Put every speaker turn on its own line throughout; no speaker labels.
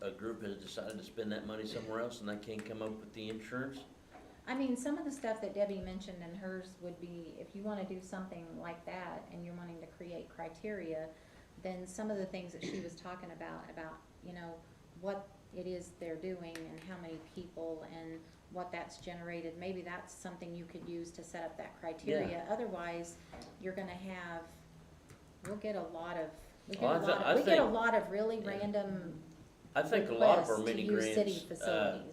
a group has decided to spend that money somewhere else and they can't come up with the insurance?
I mean, some of the stuff that Debbie mentioned in hers would be, if you wanna do something like that and you're wanting to create criteria, then some of the things that she was talking about, about, you know, what it is they're doing and how many people and what that's generated, maybe that's something you could use to set up that criteria. Otherwise, you're gonna have, we'll get a lot of, we get
Well, Oh, I
a
thi-
lot,
I
of- we get a
think-
lot of really
Yeah.
random
I think a lot of our
requests to
mini
use city
grants, uh,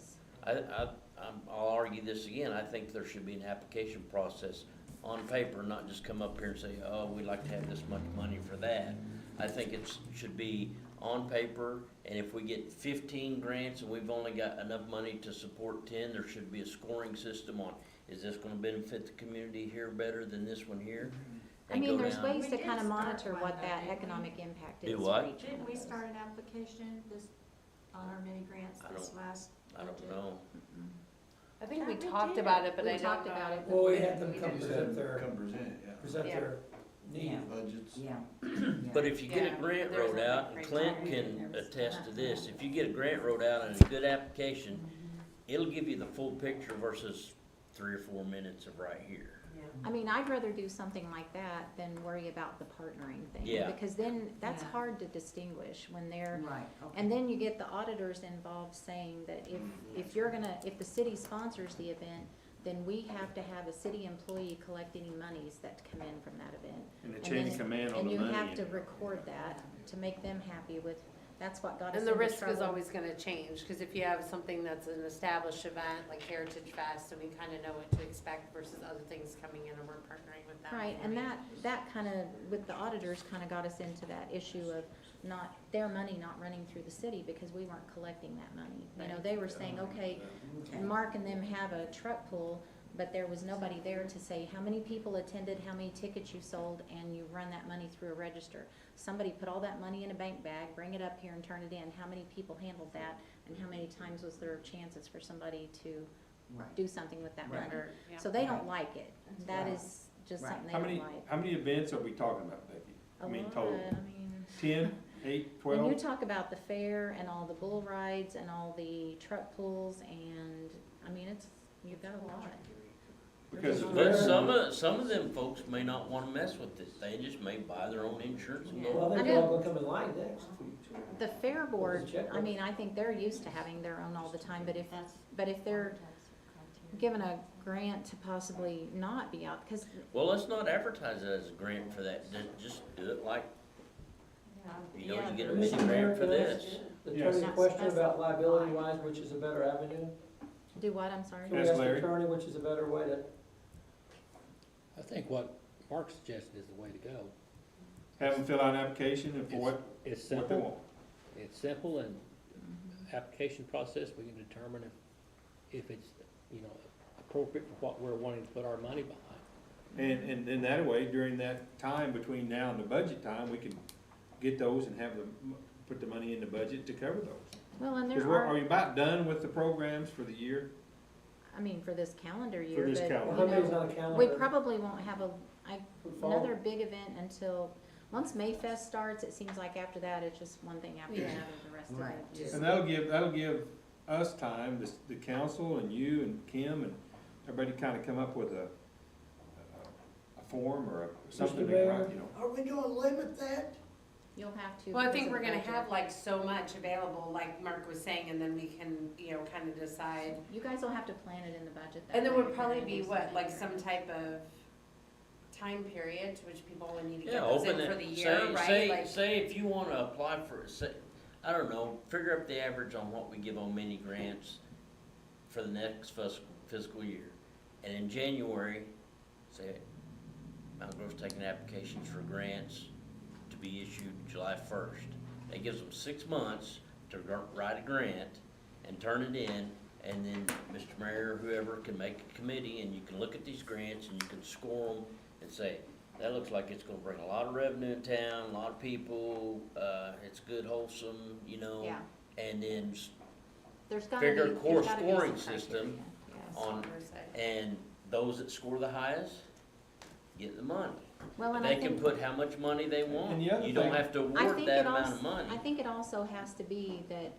facilities.
I, I, I'm, I'll argue this again, I think there should be an application process on paper, not just come up here and say, oh, we'd like to have this much money for that. I think it's, should be on paper, and if we get fifteen grants and we've only got enough money to support ten, there should be a scoring system on, is this gonna benefit the community here better than this one here?
I
And
mean,
go
there's
down.
ways
We
to
did
kind of
start
monitor
one,
what
though,
that
didn't we?
economic impact
Do
is
what?
for each one
Didn't
of
we
those.
start an application this, on our mini grants
I
this
don't-
last?
I don't
budget?
know.
I think we
Yeah, we
talked
did.
about it, but
We
I don't
talked about
know.
it.
Well, we had them come
You said
present their,
Come present, yeah.
present
Yeah.
their need.
Yeah.
Budgets.
Yeah.
But if you get a
Yeah,
grant
there's
wrote
a
out,
big
and Clint
criteria.
can attest to this, if you get a grant wrote out and a good application, it'll give you the full picture versus three or four minutes of right here.
I mean, I'd rather do something like that than worry about the partnering thing.
Yeah.
Because then, that's
Yeah.
hard to distinguish when they're,
Right, okay.
and then you get the auditors involved saying that if, if you're gonna, if the city sponsors the event, then we have to have a city employee collect any monies that come in from that event.
And the
And
chain
then-
of command on the
And you have
money.
to record that to make them happy with, that's what got us
And the
into
risk is
trouble.
always gonna change, because if you have something that's an established event, like Heritage Fest, and we kinda know what to expect versus other things coming in and we're partnering with them.
Right, and that, that kind of, with the auditors, kind of got us into that issue of not, their money not running through the city because we weren't collecting that money. You know, they were saying, okay, Mark and them have a truck pool, but there was nobody there to say how many people attended, how many tickets you sold, and you run that money through a register. Somebody put all that money in a bank bag, bring it up here and turn it in, how many people handled that, and how many times was there chances for somebody to
Right.
do something with that
Right.
money?
Yeah.
So they don't like it. That
Right.
is just
Right.
something they
How
don't
many,
like.
how many events are we talking about, Becky? I
A
mean,
lot,
total,
I mean,
ten, eight,
When you
twelve?
talk about the fair and all the bull rides and all the truck pulls and, I mean, it's, you've got a lot.
Because
But some of, some of them folks may not wanna mess with this, they just may buy their own insurance and
Well,
go.
I
they're
know.
all gonna come in line next.
The fair board,
check
I mean, I think they're used to having their own all the time, but if,
That's-
but if they're
That's criteria.
given a grant to possibly not be out, because
Well, let's not advertise it as a grant for that, Ju- just do it like,
Yeah.
you know,
Yeah.
you get a mini grant for this.
The
Yes.
attorney's question about liability wise, which is a better avenue?
do what, I'm sorry?
Can we ask the
Larry.
attorney which is a better way to,
I think what Mark suggested is the way to go.
have them fill out an application and for what, what
It's
they
simple,
want.
it's simple and application process, we can determine if, if it's, you know, appropriate for what we're wanting to put our money behind.
And, and, and that way, during that time between now and the budget time, we can get those and have them, put the money in the budget to cover those.
Well, and
Because
there
we're,
are,
are you about done with the programs for the year?
I mean, for this calendar year,
this
but,
calendar.
well,
you
how many's
know,
on a calendar?
we probably won't have a, I
for fall?
another big event until, once Mayfest starts, it seems like after that, it's just one thing after
Yeah.
another the rest of
Right.
the year.
And that'll give, that'll give us time, the, the council and you and Kim and everybody to kinda come up with a, a- a form or a-
Mr.
something, to
Mayor?
write, you know.
Are we gonna limit that?
You'll have to.
Well, I
because
think
of
we're
the
gonna
budget.
have like so much available, like Mark was saying, and then we can, you know, kinda decide.
You guys will have to plan it in the budget. that
And there
way if
would
you're
probably
gonna
be
do
what,
something
like
there.
some type of time period to which people would need to get
Yeah,
those
open
in for the
it,
year,
say,
right?
say,
Like,
say if you wanna apply for, say, I don't know, figure up the average on what we give on mini grants for the next fiscal, fiscal year. And in January, say, Mount Grove's taking applications for grants to be issued July first. That gives them six months to gr- write a grant and turn it in, and then Mr. Mayor, or whoever can make a committee, and you can look at these grants and you can score them and say, that looks like it's gonna bring a lot of revenue in town, a lot of people, uh, it's good wholesome, you know?
Yeah,
And then, s-
there's gotta be.
Bigger
there's
core
gotta be
scoring
some
system
criteria, yes.
on- and those that score the highest get the money.
Well, and I
They can
think,
put how much money they want.
And the other
You don't
thing-
have to
I
award
think
that
it
amount of
also, I
money.
think it also has to be that